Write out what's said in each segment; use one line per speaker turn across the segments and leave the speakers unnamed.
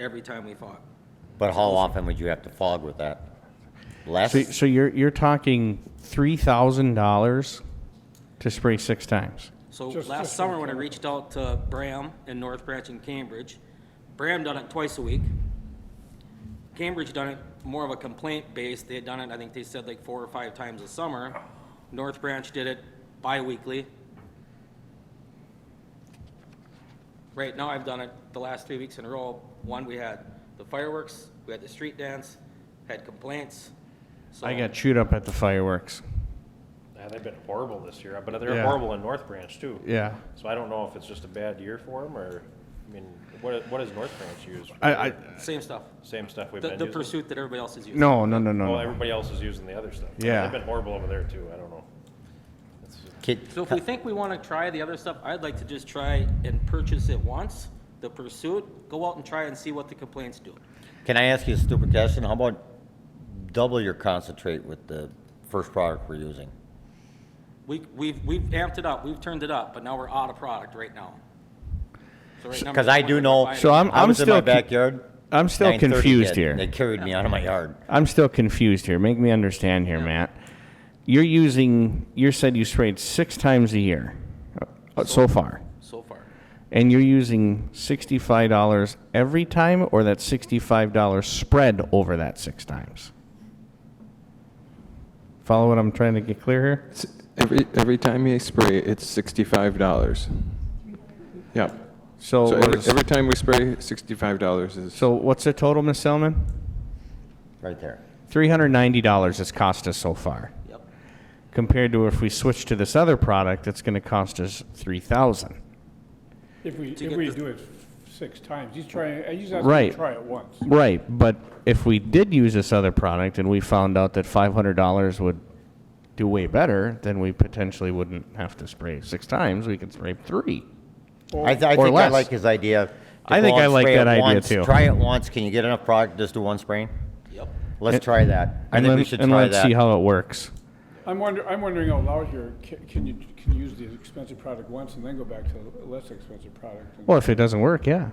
every time we fought.
But how often would you have to fog with that? Less?
So, so you're, you're talking three thousand dollars to spray six times.
So
Just-
last
just
summer, when I reached out to Bram and North Branch and Cambridge, Bram done it twice a week. Cambridge done it more of a complaint base. They had done it, I think they said like four or five times a summer. North Branch did it bi-weekly. Right now, I've done it the last three weeks in a row. One, we had the fireworks, we had the street dance, had complaints. So
I got chewed up at the fireworks.
Yeah, they've been horrible this year, but they're
Yeah.
horrible in North Branch too.
Yeah.
So I don't know if it's just a bad year for them or, I mean, what, what does North Branch use? for
I, I,
their-
Same stuff.
Same stuff we've
The,
been
the
using?
pursuit that everybody else is using.
no, no, no, no,
Well,
no.
everybody else is using the other stuff.
Yeah.
They've been horrible over there too, I don't know. It's-
Kid-
So if we think we want to try the other stuff, I'd like to just try and purchase it once, the Pursuit, go out and try and see what the complaints do.
Can I ask you a stupid question? How about double your concentrate with the first product we're using?
We, we've, we've amped it up, we've turned it up, but now we're out of product right now. So right now,
Because I do know.
So I'm-
I was in
still
my
con-
backyard.
I'm still
9:30
confused
hit,
here.
and They carried me out of my yard.
I'm still confused here. Make me understand here, Matt. You're using, you said you sprayed six times a year uh, so far,
So far.
and you're using sixty-five dollars every time, or that sixty-five dollars spread over that six times. Follow what I'm trying to get clear here.
It's- Every, every time you spray, it's sixty-five dollars. Yep.
So,
So
what
every,
is-
every time we spray, sixty-five dollars is.
so what's the total, Miss Selman?
Right there.
Three hundred ninety dollars it's cost us so far,
Yep.
compared to if we switch to this other product, it's going to cost us three thousand.
If we,
to
if
get
we
this-
do it six times, he's trying, he's asking
Right.
to try it once.
Right, but if we did use this other product and we found out that five hundred dollars would do way better, then we potentially wouldn't have to spray six times. We could spray three.
I, th- I
Or
think I
less.
like his idea. to
I
go
think
out
I
and
like
spray
that
it
idea
once,
too.
Try it once. Can you get enough product? Just do one spraying.
Yep.
Let's try that. I
and
think we
let-
should
and
try
let's see
that.
how it works.
I'm wonder, I'm wondering out loud here, ca- can you, can you use the expensive product once and then go back to the less expensive product? and-
Well, if it doesn't work, yeah.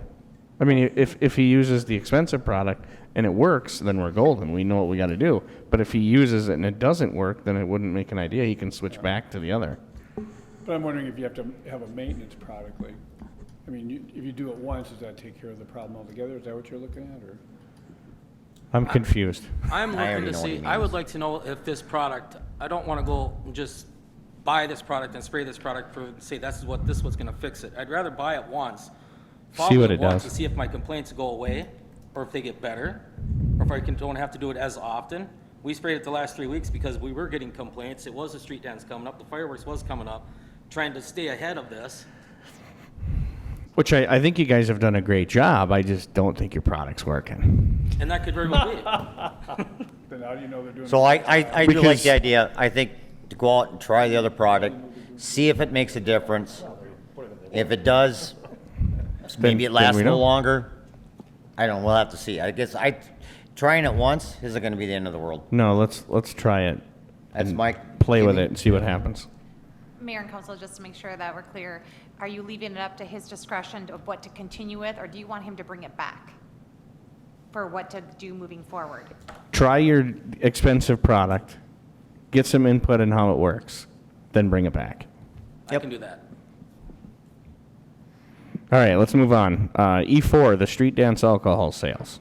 I mean, if if he uses the expensive product and it works, then we're golden. We know what we got to do. But if he uses it and it doesn't work, then it wouldn't make an idea. He can switch back to the other.
But I'm wondering if you have to have a maintenance product, like, I mean, you- if you do it once, does that take care of the problem altogether? Is that what you're looking at, or?
I'm confused.
I'm
I
looking
already
to
know what
see,
he
I
means.
would like to know if this product, I don't want to go and just buy this product and spray this product for, say, that's what, this was going to fix it. I'd rather buy it once. follow
what it
once
does.
To see if my complaints go away, or if they get better, or if I can, don't have to do it as often. We sprayed it the last three weeks because we were getting complaints. It was a street dance coming up, the fireworks was coming up, trying to stay ahead of this.
Which I, I think you guys have done a great job. I just don't think your product's working.
And that could very well be. it.
Then how do you know they're doing?
So I, I, I do like
Because-
the idea. I think to go out and try the other product, see if it makes a difference. If it does, maybe it
then
lasts a
we
little
know.
longer. I don't. know. We'll have to see. I guess I trying it once isn't going to be the end of the world.
No, let's let's try it.
That's
and
my
play with
opinion.
it and see what happens.
Mayor and council, just to make sure that we're clear, are you leaving it up to his discretion of what to continue with, or do you want him to bring it back for what to do moving forward?
Try your expensive product, get some input on how it works, then bring it back.
I can do that.
All right, let's move on. Uh, E4, the street dance alcohol sales.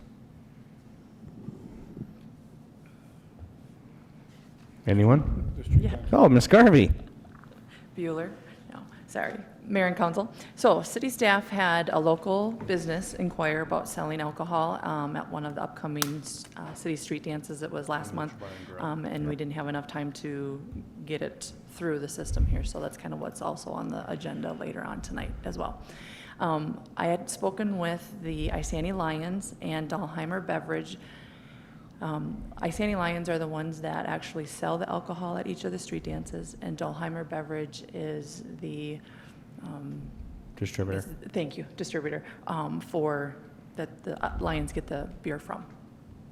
Anyone?
The street dance?
Oh, Miss Garvey.
Bueller, no, sorry, Mayor and Council. So, city staff had a local business inquire about selling alcohol um, at one of the upcoming uh, city street dances that was last month, Um, and we didn't have enough time to get it through the system here, so that's kind of what's also on the agenda later on tonight as well. Um, I had spoken with the Isani Lions and Dahlheimer Beverage um, Isani Lions are the ones that actually sell the alcohol at each of the street dances, and Dolheimer Beverage is the, um,
Distributor.
is- thank you, distributor, um, for, that the uh, Lions get the beer from,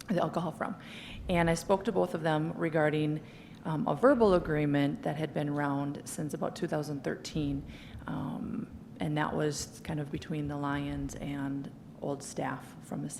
the alcohol from. And I spoke to both of them regarding um, a verbal agreement that had been around since about 2013. um, And that was kind of between the Lions and old staff from the